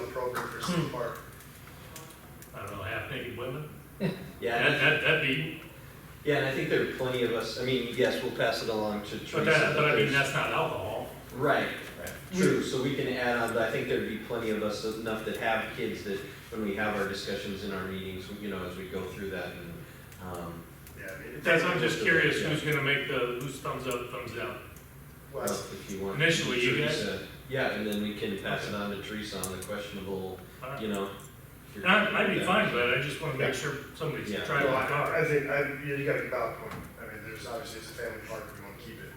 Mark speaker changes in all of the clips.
Speaker 1: program for City Park.
Speaker 2: I don't know, half-naked women?
Speaker 3: Yeah,
Speaker 2: That,
Speaker 3: and I-
Speaker 2: that, that'd be,
Speaker 3: yeah, and I think there are plenty of us, I mean, yes, we'll pass it along to Teresa.
Speaker 2: but that, but I mean,
Speaker 3: there's-
Speaker 2: that's not alcohol.
Speaker 3: Right, true, so we can add on, but I think there'd be plenty of us enough that have kids that when we have our discussions in our meetings, you know, as we go through that and, um,
Speaker 1: Yeah, I mean, if
Speaker 2: That's,
Speaker 1: they-
Speaker 2: I'm just curious, who's gonna make the, who's thumbs up, thumbs down?
Speaker 1: Well,
Speaker 3: well, if you want.
Speaker 2: Initially, you guys-
Speaker 3: Teresa- Yeah, and then we can pass it on to Teresa on the questionable,
Speaker 2: All right.
Speaker 3: you know. if you're-
Speaker 2: And I, I'd be fine, but I just wanna make sure somebody's
Speaker 3: Yeah.
Speaker 2: trying
Speaker 1: well,
Speaker 2: my
Speaker 1: I
Speaker 2: car.
Speaker 1: I think, I, you you got a valid point. I mean, there's obviously, it's a family park, we want to keep it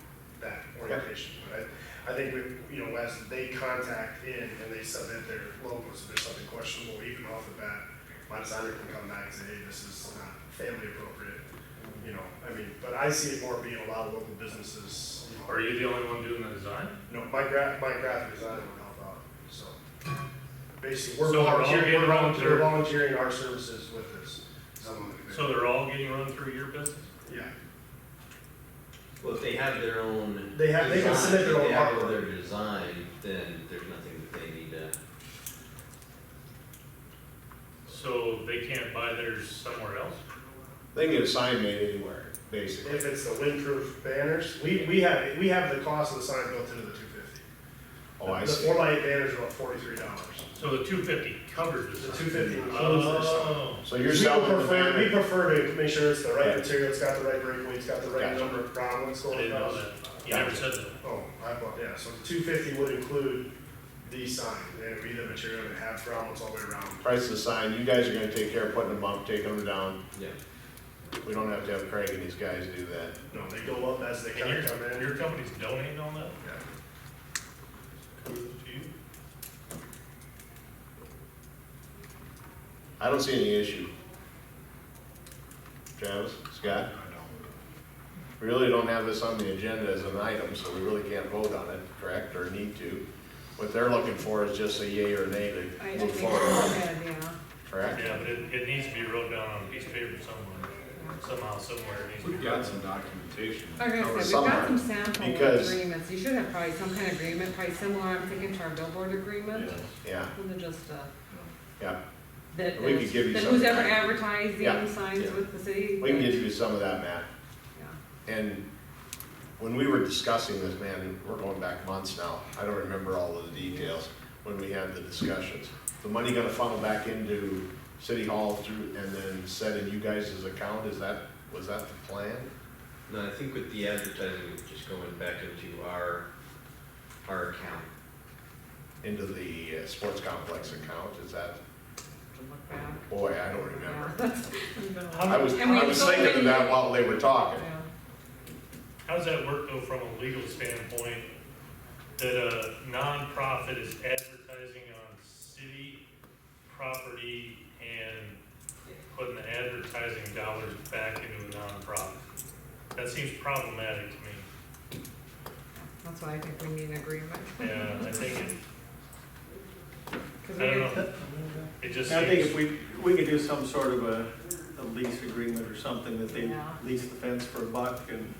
Speaker 1: that orientation. But I, I think we, you know, as they contact in and they submit their logos, if there's something questionable, even off the bat, my designer can come back and say, hey, this is not family appropriate, you know, I mean, but I see it more being a lot of local businesses. you know,
Speaker 2: Are you the only one doing the design?
Speaker 1: No, my gra, my graphic designer would help out, so. Basically, we're
Speaker 2: So we're all
Speaker 1: volunteering,
Speaker 2: getting
Speaker 1: we're volunteering,
Speaker 2: volunteer-
Speaker 1: we're volunteering our services with this. someone that could-
Speaker 2: So they're all getting run through your business?
Speaker 1: Yeah,
Speaker 3: Well, if they have their own.
Speaker 1: They have- they can
Speaker 3: design,
Speaker 1: submit their
Speaker 3: if
Speaker 1: own
Speaker 3: They have
Speaker 1: artwork.
Speaker 3: their design, then there's nothing that they need to,
Speaker 2: So they can't buy theirs somewhere else?
Speaker 4: They can get a sign made anywhere, basically.
Speaker 1: if it's the windproof banners, we, we have, we have the cost of the sign built into the two fifty.
Speaker 4: Oh, I
Speaker 1: The four
Speaker 4: see.
Speaker 1: by eight banners are about forty-three dollars.
Speaker 2: So the two fifty covers the
Speaker 1: The
Speaker 2: sign?
Speaker 1: two fifty includes this.
Speaker 2: Oh,
Speaker 4: So you're selling the
Speaker 1: We
Speaker 4: banner?
Speaker 1: prefer to make sure it's the right
Speaker 4: Yeah.
Speaker 1: material, it's got the right breakaway, it's got the right
Speaker 4: Gotcha.
Speaker 1: number of grommets
Speaker 2: I
Speaker 1: going
Speaker 2: didn't know
Speaker 1: across.
Speaker 2: that. You never said that.
Speaker 1: Oh, I bought, yeah, so two fifty would include the sign, and it would be the material that have grommets all the way around.
Speaker 4: Price of the sign, you guys are gonna take care of putting them up, taking them down.
Speaker 3: yeah.
Speaker 4: We don't have to have Craig and these guys do that.
Speaker 1: No, they go up as they
Speaker 2: And
Speaker 1: kind of come
Speaker 2: your,
Speaker 1: in.
Speaker 2: your company's donating all that
Speaker 1: Yeah.
Speaker 2: to you?
Speaker 4: I don't see any issue. Travis, Scott? We really don't have this on the agenda as an item, so we really can't vote on it, correct, or need to. What they're looking for is just a yay or nay
Speaker 5: I
Speaker 4: to
Speaker 5: I
Speaker 4: move
Speaker 5: think it's
Speaker 4: forward,
Speaker 5: good, yeah.
Speaker 4: correct?
Speaker 2: Yeah, but it, it needs to be wrote down on a piece of paper somewhere, somehow, somewhere. it needs to be written
Speaker 6: We've got
Speaker 2: down.
Speaker 6: some documentation.
Speaker 5: Like I said, we've
Speaker 4: Somewhere,
Speaker 5: got some sample
Speaker 4: because-
Speaker 5: agreements, you should have probably some kind of agreement, probably similar, I'm thinking to our billboard agreement.
Speaker 4: Yeah,
Speaker 5: Than just uh
Speaker 4: yeah.
Speaker 5: that,
Speaker 4: We could
Speaker 5: is-
Speaker 4: give you
Speaker 5: that
Speaker 4: some
Speaker 5: who's
Speaker 4: kind
Speaker 5: ever
Speaker 4: of- Yeah,
Speaker 5: advertising signs
Speaker 3: yeah.
Speaker 5: with the city.
Speaker 4: We can
Speaker 5: that-
Speaker 4: get you some of that, Matt.
Speaker 5: yeah.
Speaker 4: And when we were discussing this, man, we're going back months now, I don't remember all of the details when we had the discussions. The money gonna funnel back into City Hall through, and then set in you guys' account, is that, was that the plan?
Speaker 3: No, I think with the advertising, just going back into our, our account.
Speaker 4: Into the uh, sports complex account, is that,
Speaker 5: To look back.
Speaker 4: boy, I don't remember.
Speaker 5: Yeah, that's- it's been a while.
Speaker 4: I was,
Speaker 5: And we
Speaker 4: I was
Speaker 5: totally-
Speaker 4: thinking of that while they were talking.
Speaker 5: Yeah.
Speaker 2: How does that work though from a legal standpoint, that a nonprofit is advertising on city property and putting the advertising dollars back into a nonprofit? That seems problematic to me.
Speaker 5: That's why I think we need an agreement.
Speaker 2: Yeah, I think it,
Speaker 5: 'Cause
Speaker 2: I
Speaker 5: we
Speaker 2: don't
Speaker 5: did-
Speaker 2: know, it just
Speaker 7: I think if
Speaker 2: seems,
Speaker 7: we, we could do some sort of a, a lease agreement or something, that they
Speaker 5: Yeah.
Speaker 7: lease the fence for a buck and.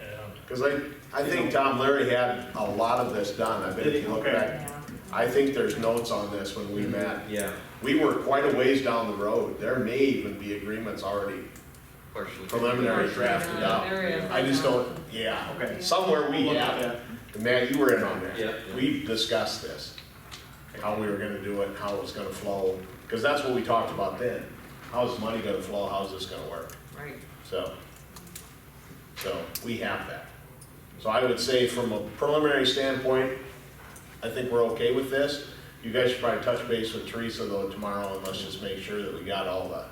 Speaker 2: yeah.
Speaker 4: Cause I, I think Tom Leary had a lot of this done, I bet if you look
Speaker 7: Okay.
Speaker 4: back,
Speaker 5: yeah.
Speaker 4: I think there's notes on this when we met.
Speaker 3: Yeah,
Speaker 4: We were quite a ways down the road. There may even be agreements already
Speaker 3: partially.
Speaker 4: preliminary drafted
Speaker 5: Yeah,
Speaker 4: out.
Speaker 5: There is.
Speaker 4: I just don't, yeah,
Speaker 7: Okay.
Speaker 4: somewhere we
Speaker 7: We'll look
Speaker 4: have. it.
Speaker 7: at that.
Speaker 4: And Matt, you were in on that.
Speaker 3: Yeah.
Speaker 4: We discussed this, how we were gonna do it, how it was gonna flow, because that's what we talked about then. How's money gonna flow? How's this gonna work?
Speaker 5: Right.
Speaker 4: So, so we have that. So I would say from a preliminary standpoint, I think we're okay with this. You guys should probably touch base with Teresa though tomorrow and let's just make sure that we got all the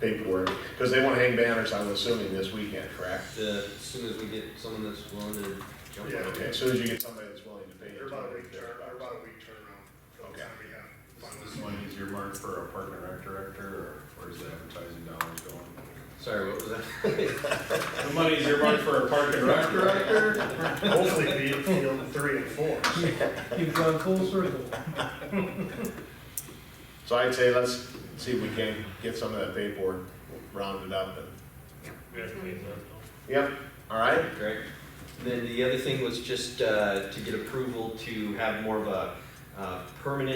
Speaker 4: paperwork. Because they want to hang banners, I'm assuming, this weekend, correct?
Speaker 3: Uh, As soon as we get someone that's willing to jump on
Speaker 1: Yeah.
Speaker 3: it.
Speaker 4: Okay, as soon as you get somebody that's willing to pay.
Speaker 1: They're about a week turn, or about a week turnaround from the
Speaker 4: Okay.
Speaker 1: time we have.
Speaker 6: This
Speaker 1: finalized.
Speaker 6: one is earmarked for a park and rec director, or where's the advertising dollars going?
Speaker 3: Sorry, what was that?
Speaker 6: The money's earmarked for a park and rec director?
Speaker 1: Hopefully be in field three and four.
Speaker 7: You've gone full circle.
Speaker 4: So I'd say let's see if we can get some of that paperwork rounded up and,
Speaker 2: Congratulations, that's all.
Speaker 4: yep, all right?
Speaker 3: Great. Then the other thing was just uh, to get approval to have more of a uh, permanent